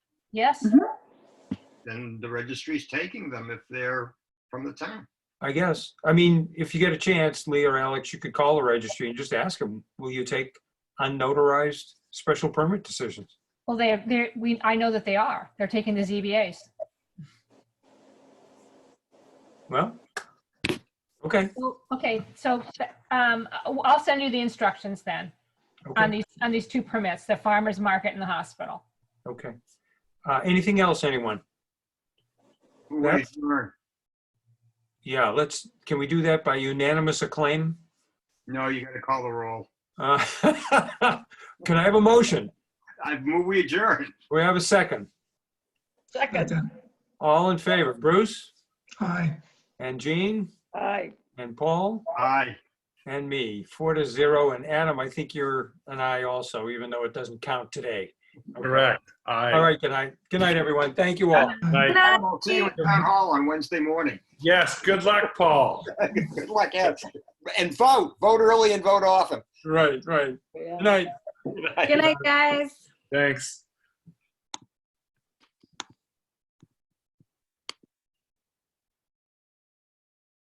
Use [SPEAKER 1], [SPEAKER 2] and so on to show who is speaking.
[SPEAKER 1] Yes,
[SPEAKER 2] Mhm.
[SPEAKER 3] then the registry's taking them if they're from the town.
[SPEAKER 4] I guess. I mean, if you get a chance, Lee or Alex, you could call the registry and just ask them, will you take unnotarized special permit decisions?
[SPEAKER 1] well, they're, they're, we, I know that they are. They're taking the ZBAs.
[SPEAKER 4] Well, okay,
[SPEAKER 1] Well, Okay, so, um, I'll send you the instructions then on
[SPEAKER 4] okay,
[SPEAKER 1] these, on these two permits, the farmer's market and the hospital.
[SPEAKER 4] okay. Uh, anything else, anyone?
[SPEAKER 3] Who are you
[SPEAKER 4] That's-
[SPEAKER 3] for?
[SPEAKER 4] Yeah, let's, can we do that by unanimous acclaim?
[SPEAKER 3] No, you gotta call the roll.
[SPEAKER 4] Uh, Can I have a motion?
[SPEAKER 3] I've moved, we adjourn.
[SPEAKER 4] We have a second.
[SPEAKER 5] Second,
[SPEAKER 4] All in favor, Bruce
[SPEAKER 5] aye.
[SPEAKER 4] and Jean
[SPEAKER 5] Aye.
[SPEAKER 4] and Paul
[SPEAKER 3] Aye.
[SPEAKER 4] and me, four to zero. And Adam, I think you're an aye also, even though it doesn't count today.
[SPEAKER 6] Correct.
[SPEAKER 4] All
[SPEAKER 6] I,
[SPEAKER 4] right, good night. Good night, everyone. Thank you all.
[SPEAKER 6] I-
[SPEAKER 3] I'll see you at town hall on Wednesday morning.
[SPEAKER 6] yes, good luck, Paul.
[SPEAKER 3] Good luck, Ed. And vote, vote early and vote often.
[SPEAKER 4] Right, right. Good night.
[SPEAKER 3] Good night.
[SPEAKER 7] Good night, guys.
[SPEAKER 6] Thanks.